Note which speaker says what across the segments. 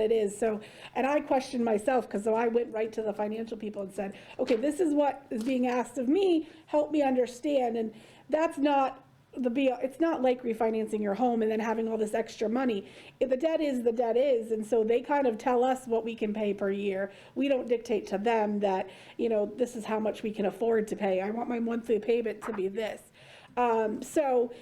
Speaker 1: it is, so, and I questioned myself, because so I went right to the financial people and said, okay, this is what is being asked of me, help me understand, and that's not the be, it's not like refinancing your home and then having all this extra money. If the debt is, the debt is, and so they kind of tell us what we can pay per year. We don't dictate to them that, you know, this is how much we can afford to pay, I want my monthly payment to be this. Um, so,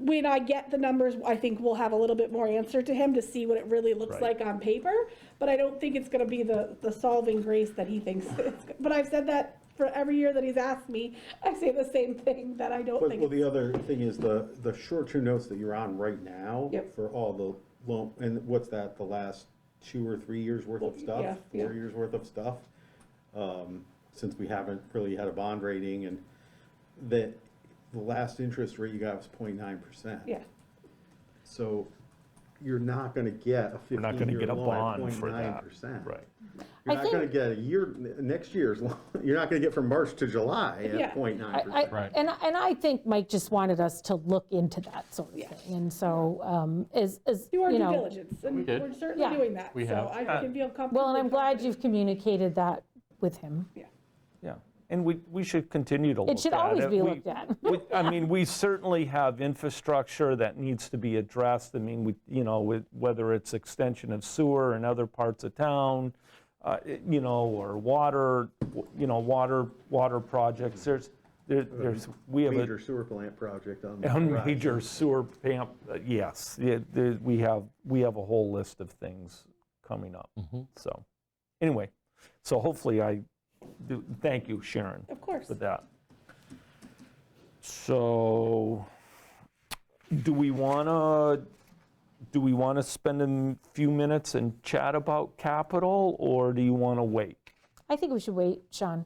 Speaker 1: when I get the numbers, I think we'll have a little bit more answer to him to see what it really looks
Speaker 2: Right.
Speaker 1: like on paper, but I don't think it's gonna be the, the solving grace that he thinks. it's go- But I've said that for every year that he's asked me, I say the same thing, that I don't
Speaker 3: But, well,
Speaker 1: think.
Speaker 3: the other thing is the, the short-term notes that you're on right now.
Speaker 1: Yep.
Speaker 3: For all the loan, and what's that, the last two or three years' worth of
Speaker 1: yeah,
Speaker 3: stuff? Four
Speaker 1: yeah.
Speaker 3: years' worth of stuff? Um, Since we haven't really had a bond rating and that, the last interest rate you got was 0.9 percent.
Speaker 1: Yeah,
Speaker 3: So you're not gonna get a
Speaker 2: We're not going to
Speaker 3: fifteen-year
Speaker 2: get a
Speaker 3: loan at
Speaker 2: bond for
Speaker 3: 0.9
Speaker 2: that.
Speaker 3: percent.
Speaker 2: Right.
Speaker 3: You're
Speaker 4: I
Speaker 3: not gonna
Speaker 4: think-
Speaker 3: get a year, n- next year's, loan. you're not gonna get from March to July
Speaker 1: Yeah.
Speaker 3: at 0.9
Speaker 4: I-
Speaker 3: percent.
Speaker 4: I- And, I- and I think Mike just wanted us to look into that sort of thing. And so, um, is, is,
Speaker 1: do our
Speaker 4: you
Speaker 1: due
Speaker 4: know.
Speaker 1: diligence, and
Speaker 5: did.
Speaker 1: we're certainly
Speaker 4: Yeah.
Speaker 1: doing that,
Speaker 5: We
Speaker 1: so
Speaker 5: have.
Speaker 1: I
Speaker 2: Uh,
Speaker 1: can feel comfortable.
Speaker 4: Well, and I'm glad you've communicated that with him.
Speaker 2: Yeah, and we, we should continue to look at it.
Speaker 4: should always be
Speaker 2: We-
Speaker 4: looked at.
Speaker 2: we- I mean, we certainly have infrastructure that needs to be addressed. I mean, we, you know, with- whether it's extension of sewer in other parts of town, uh, it- you know, or water, w- you know, water, water projects, there's, there- there's, we have a
Speaker 3: Major sewer plant project on. the
Speaker 2: a
Speaker 3: horizon.
Speaker 2: major sewer pump, uh, yes, yeah, there- we have, we have a whole list of things coming up. So, anyway, so hopefully I, do- thank you, Sharon
Speaker 1: Of course.
Speaker 2: with that. So, do we want to, do we want to spend a m- few minutes and chat about capital, or do you want to wait?
Speaker 4: I think we should wait, Sean.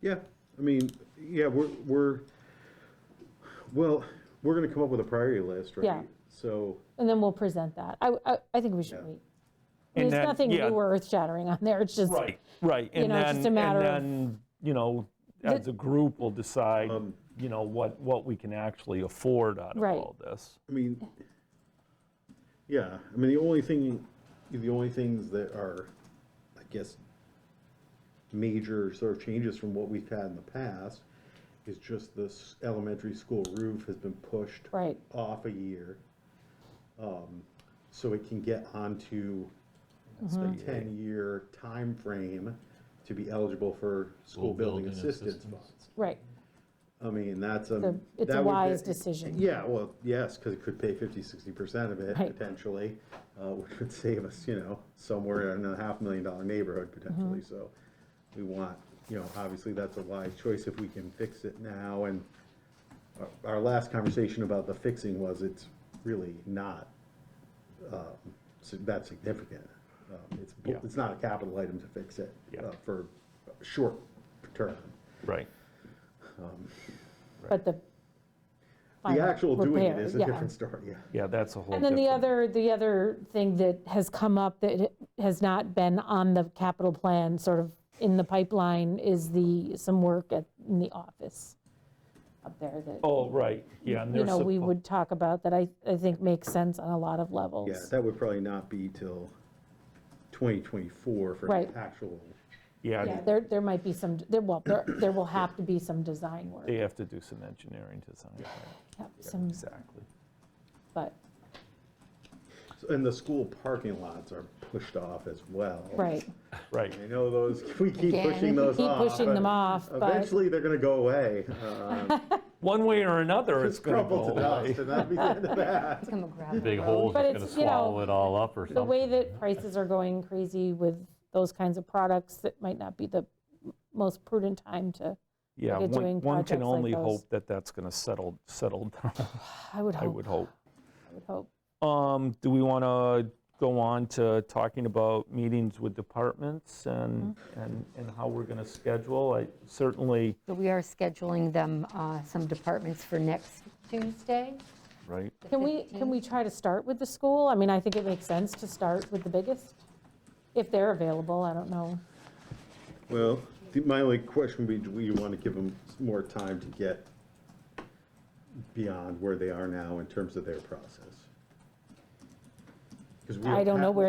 Speaker 3: Yeah, I mean, yeah, we're, we're, well, we're gonna come up with a priority list,
Speaker 4: Yeah.
Speaker 3: right? So,
Speaker 4: And then we'll present that. I, I, I think we should wait.
Speaker 2: And
Speaker 4: There's
Speaker 2: then-
Speaker 4: nothing
Speaker 2: yeah.
Speaker 4: new or earth-shattering on there. It's just,
Speaker 2: Right,
Speaker 4: You
Speaker 2: and
Speaker 4: know, it's
Speaker 2: then,
Speaker 4: just a
Speaker 2: and
Speaker 4: matter of-
Speaker 2: then, you know, as a group, we'll decide,
Speaker 3: Um,
Speaker 2: you know, what, what we can actually afford out of
Speaker 4: Right.
Speaker 2: all this.
Speaker 3: I mean, yeah, I mean, the only thing, the only things that are, I guess, major sort of changes from what we've had in the past is just this elementary school roof has been pushed
Speaker 4: right.
Speaker 3: off a year, um, so it can get onto a
Speaker 4: Mm-hmm.
Speaker 3: ten-year time frame to be eligible for school building
Speaker 5: building
Speaker 3: assistance
Speaker 5: assistance.
Speaker 3: funds.
Speaker 4: Right,
Speaker 3: I mean, that's a.
Speaker 4: The- it's a
Speaker 3: that would be-
Speaker 4: wise decision.
Speaker 3: Yeah, well, yes, because it could pay 50, 60% of it
Speaker 4: Right.
Speaker 3: potentially, uh, which would save us, you know, somewhere in a half million dollar neighborhood potentially.
Speaker 4: Mm-hmm.
Speaker 3: So we want, you know, obviously that's a wise choice if we can fix it now. And our- our last conversation about the fixing was it's really not um, si- that significant. Um, It's,
Speaker 2: Yeah.
Speaker 3: it's not a capital item to fix it
Speaker 2: Yeah.
Speaker 3: uh, for short term.
Speaker 2: Right.
Speaker 4: but the.
Speaker 3: The
Speaker 4: final
Speaker 3: actual doing it
Speaker 4: repair,
Speaker 3: is a
Speaker 4: yeah.
Speaker 3: different story, yeah.
Speaker 2: Yeah, that's a whole
Speaker 4: And then the
Speaker 2: different-
Speaker 4: other, the other thing that has come up that has not been on the capital plan, sort of in the pipeline, is the, some work at, in the office up there that,
Speaker 2: Oh, right, yeah, and
Speaker 4: you
Speaker 2: there's.
Speaker 4: know, we
Speaker 2: suppo-
Speaker 4: would talk about that I, I think makes sense on a lot of levels.
Speaker 3: Yeah, that would probably not be till 2024 for
Speaker 4: Right.
Speaker 3: an actual,
Speaker 4: Yeah,
Speaker 2: Yeah,
Speaker 4: there, there might be some, there, well, there, there will have to be some design work,
Speaker 2: they have to do some engineering design, right,
Speaker 4: Yep, some,
Speaker 2: exactly.
Speaker 4: but,
Speaker 3: and the school parking lots are pushed off as well.
Speaker 4: right,
Speaker 2: Right,
Speaker 3: I know those, we keep
Speaker 6: Again,
Speaker 3: pushing
Speaker 6: we
Speaker 3: those
Speaker 4: keep
Speaker 3: off.
Speaker 4: pushing them off, but-
Speaker 3: Eventually, they're going to go away. Uh,
Speaker 2: one way or another, it's
Speaker 3: It's
Speaker 2: going to
Speaker 3: crumbled
Speaker 2: go
Speaker 3: to dust,
Speaker 2: away.
Speaker 3: and that'd be the end of that.
Speaker 6: Come and grab it.
Speaker 5: Big holes
Speaker 4: But
Speaker 5: that's going to
Speaker 4: it's, you know,
Speaker 5: swallow it all up or
Speaker 4: the
Speaker 5: something.
Speaker 4: way that prices are going crazy with those kinds of products, that might not be the most prudent time to,
Speaker 2: Yeah,
Speaker 4: They're
Speaker 2: one
Speaker 4: doing
Speaker 2: one can
Speaker 4: projects like
Speaker 2: only
Speaker 4: those.
Speaker 2: hope that that's going to settle, settle down,
Speaker 4: I would
Speaker 2: I
Speaker 4: hope,
Speaker 2: would hope.
Speaker 4: I would hope.
Speaker 2: Um, do we want to go on to talking about meetings with departments and, and, and how we're going to schedule? I certainly,
Speaker 6: So we are scheduling them, uh, some departments for next Tuesday.
Speaker 2: right,
Speaker 6: the
Speaker 4: Can we,
Speaker 6: 15th.
Speaker 4: can we try to start with the school? I mean, I think it makes sense to start with the biggest, if they're available, I don't know.
Speaker 3: Well, the- my only question would be, do we want to give them more time to get beyond where they are now in terms of their process? 'Cause we
Speaker 4: I don't know
Speaker 3: have-
Speaker 4: where